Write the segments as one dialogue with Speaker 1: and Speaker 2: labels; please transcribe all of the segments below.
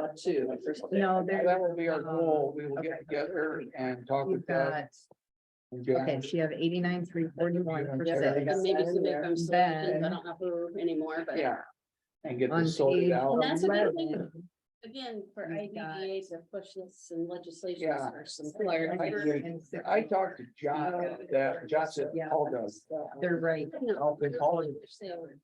Speaker 1: have two. the first day.
Speaker 2: No, there-
Speaker 1: That will be our
Speaker 2: uh,
Speaker 1: goal. We will
Speaker 2: okay.
Speaker 1: get together and talk with
Speaker 2: You've
Speaker 1: that.
Speaker 2: got, okay, so you have eighty-nine, three forty-one for
Speaker 1: Yeah,
Speaker 2: six.
Speaker 1: got
Speaker 3: And maybe some of them, so I
Speaker 2: Then-
Speaker 3: don't have her anymore, but.
Speaker 1: Yeah. And get
Speaker 2: On
Speaker 1: this sorted
Speaker 2: page
Speaker 1: out.
Speaker 3: And that's a good thing.
Speaker 2: 11,
Speaker 3: Again, for
Speaker 2: You've got-
Speaker 3: IDEA to push this and legislation
Speaker 1: Yeah.
Speaker 3: or some clarity.
Speaker 1: I-
Speaker 2: and six.
Speaker 1: I talked to John, about that John said,
Speaker 2: Yeah.
Speaker 1: Paul does.
Speaker 2: They're right.
Speaker 1: I'll be calling.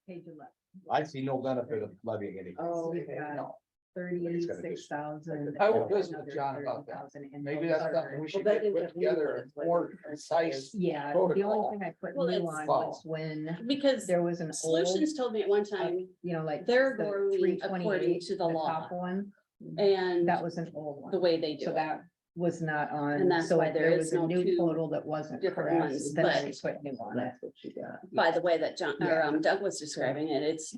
Speaker 2: Page eleven.
Speaker 4: I see no benefit of levying any.
Speaker 2: Oh,
Speaker 1: Okay,
Speaker 2: we've got
Speaker 1: no.
Speaker 2: Thirty-six thousand.
Speaker 1: I will visit with John about that. Maybe that's something we should
Speaker 2: Oh, Well, that
Speaker 1: get
Speaker 2: is
Speaker 1: put
Speaker 2: what we
Speaker 1: together, a
Speaker 2: wanted,
Speaker 1: more
Speaker 2: wasn't it?
Speaker 1: concise.
Speaker 2: Yeah, the
Speaker 1: protocol.
Speaker 2: only thing I put
Speaker 3: Well,
Speaker 2: new
Speaker 3: it's-
Speaker 2: on was when
Speaker 3: Because
Speaker 2: there was an old,
Speaker 3: Solutions told me at one time,
Speaker 2: you know, like.
Speaker 3: they're
Speaker 2: the
Speaker 3: going according
Speaker 2: 328,
Speaker 3: to the law
Speaker 2: top One,
Speaker 3: and
Speaker 2: that was an old one.
Speaker 3: the way they
Speaker 2: So
Speaker 3: do it.
Speaker 2: that was not
Speaker 3: And
Speaker 2: on,
Speaker 3: that's
Speaker 2: so
Speaker 3: why
Speaker 2: if
Speaker 3: there
Speaker 2: there was
Speaker 3: is
Speaker 2: a
Speaker 3: no
Speaker 2: new
Speaker 3: two
Speaker 2: total that wasn't
Speaker 3: different
Speaker 2: correct,
Speaker 3: ones,
Speaker 2: then I
Speaker 3: but-
Speaker 2: would put new on it.
Speaker 1: That's what you got.
Speaker 3: By the way that John, or
Speaker 2: Yeah.
Speaker 3: um, Doug was describing it, it's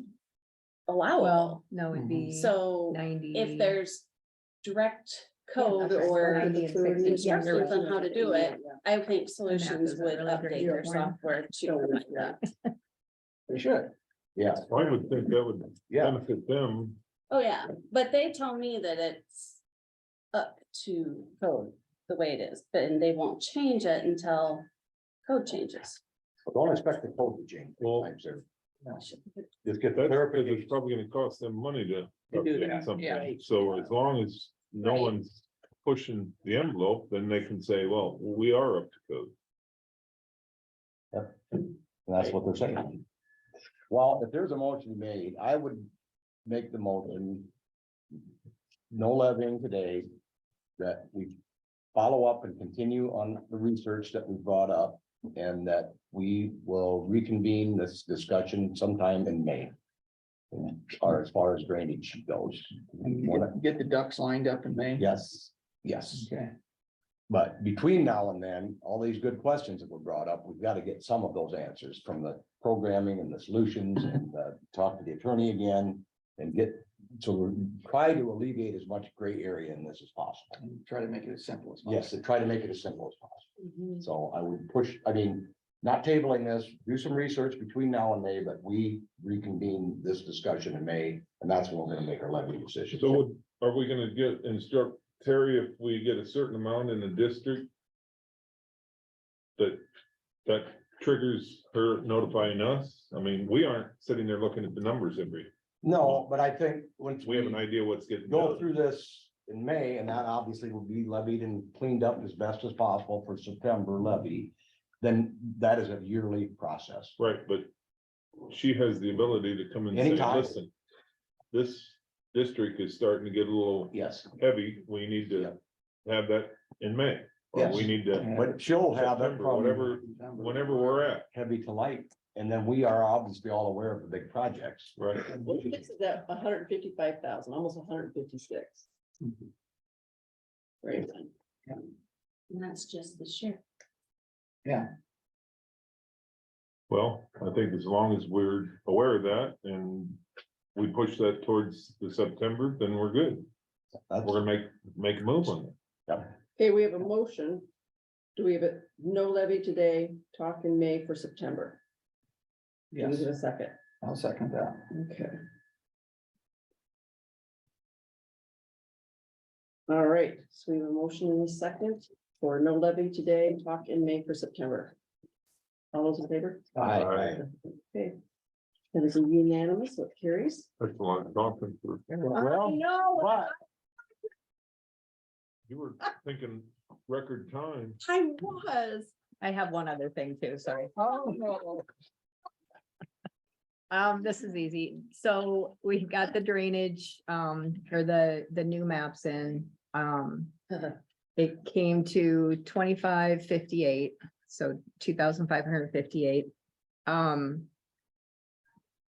Speaker 2: Well,
Speaker 3: allowable.
Speaker 2: Oh, no, it'd
Speaker 1: Mhm.
Speaker 2: be.
Speaker 3: So
Speaker 2: Ninety.
Speaker 3: if there's direct code
Speaker 2: okay.
Speaker 3: or
Speaker 2: Ninety and 60.
Speaker 3: instructions on how to do it, I think
Speaker 2: that
Speaker 3: Solutions
Speaker 2: doesn't
Speaker 3: would
Speaker 2: really
Speaker 3: update
Speaker 2: bring
Speaker 3: their
Speaker 2: it down.
Speaker 3: software to like that.
Speaker 1: We should.
Speaker 4: Yeah,
Speaker 5: I would think that would
Speaker 4: yeah.
Speaker 5: benefit them.
Speaker 3: Oh, yeah, but they told me that it's up to code the way it is, but and they won't change it until code changes.
Speaker 4: Don't expect the code to change.
Speaker 5: Well-
Speaker 4: Times there.
Speaker 3: But
Speaker 4: Just get the
Speaker 5: That's because it's
Speaker 4: clarification.
Speaker 5: probably gonna cost them money to
Speaker 1: To do that,
Speaker 5: update
Speaker 1: yeah.
Speaker 5: something. So as long as no
Speaker 3: Right.
Speaker 5: one's pushing the envelope, then they can say, well, we are up to code.
Speaker 4: And That's what they're saying. Well, if there's a motion made, I would make the motion. No levying today, that we follow up and continue on the research that we brought up. And that we will reconvene this discussion sometime in May. Or as far as drainage goes.
Speaker 1: Get the ducks lined up in May.
Speaker 4: Yes, yes.
Speaker 1: Okay.
Speaker 4: But between now and then, all these good questions that were brought up, we've got to get some of those answers from the programming and the solutions and uh, talk to the attorney again. And get, so we're try to alleviate as much gray area in this as possible.
Speaker 1: And Try to make it as simple as possible.
Speaker 4: Yes, and try to make it as simple as possible. So I would push, I mean, not tabling this, do some research between now and May, but we reconvene this discussion in May. And that's when we're gonna make our levy decision.
Speaker 5: So would- are we gonna get instruct Terry if we get a certain amount in the district? That, that triggers her notifying us? I mean, we aren't sitting there looking at the numbers every,
Speaker 4: No, but I think once.
Speaker 5: we have an idea what's getting
Speaker 4: go
Speaker 5: done.
Speaker 4: through this in May, and that obviously will be levied and cleaned up as best as possible for September levy. Then that is a yearly process.
Speaker 5: Right, but she has the ability to come and say,
Speaker 4: Anytime.
Speaker 5: listen. This district is starting to get a little
Speaker 4: Yes,
Speaker 5: heavy, we need to have that in May. Or we
Speaker 4: Yes.
Speaker 5: need to,
Speaker 4: but she'll have it
Speaker 5: September, whatever.
Speaker 4: from
Speaker 1: December.
Speaker 5: whenever we're at,
Speaker 4: heavy to light, and then we are obviously all aware of the big projects.
Speaker 5: right?
Speaker 6: This is at hundred and fifty-five thousand, almost hundred and fifty-six.
Speaker 1: Mhm.
Speaker 6: Right,
Speaker 3: And that's just this year.
Speaker 5: Well, I think as long as we're aware of that and we push that towards the September, then we're good.
Speaker 4: That's-
Speaker 5: We're gonna make, make a move on it.
Speaker 6: okay, we have a motion. Do we have it, no levy today, talk in May for September? Give
Speaker 1: Yes,
Speaker 6: it a second,
Speaker 1: I'll second that.
Speaker 6: okay. All right, so we have a motion in a second for no levy today, talk in May for September. All those in favor?
Speaker 4: I- I-
Speaker 5: Alright.
Speaker 6: Okay. That is unanimous, so it carries.
Speaker 5: That's a lot of talking for,
Speaker 4: Well, but
Speaker 5: you were thinking record time.
Speaker 3: I was.
Speaker 2: I have one other thing too, sorry.
Speaker 1: Oh, no.
Speaker 2: Um, this is easy. So we've got the drainage, um, or the, the new maps in, um. It came to twenty-five fifty-eight, so two thousand five hundred fifty-eight. Um.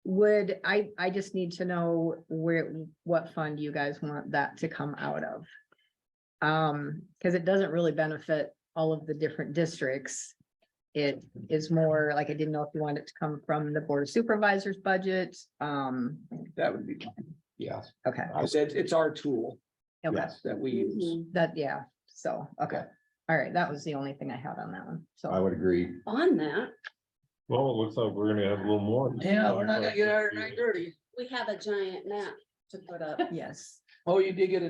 Speaker 2: Would, I, I just need to know where, what fund you guys want that to come out of. Um, because it doesn't really benefit all of the different districts. It is more like, I didn't know if you wanted it to come from the board of supervisors budget, um,
Speaker 1: That would be, fine.
Speaker 4: yeah,
Speaker 2: okay,
Speaker 1: I said, it's our tool
Speaker 2: okay,
Speaker 4: yes,
Speaker 1: that we
Speaker 3: Mm-hmm.
Speaker 1: use.
Speaker 2: that, yeah, so, okay.
Speaker 4: Yeah.
Speaker 2: All right, that was the only thing I had on that one,
Speaker 4: I
Speaker 2: so,
Speaker 4: would agree.
Speaker 3: On that,
Speaker 5: Well, it looks like we're gonna have a little more.
Speaker 1: Yeah, we're not gonna get out at nine thirty.
Speaker 3: we have a giant map to put up.
Speaker 2: yes.
Speaker 1: Oh, you did get a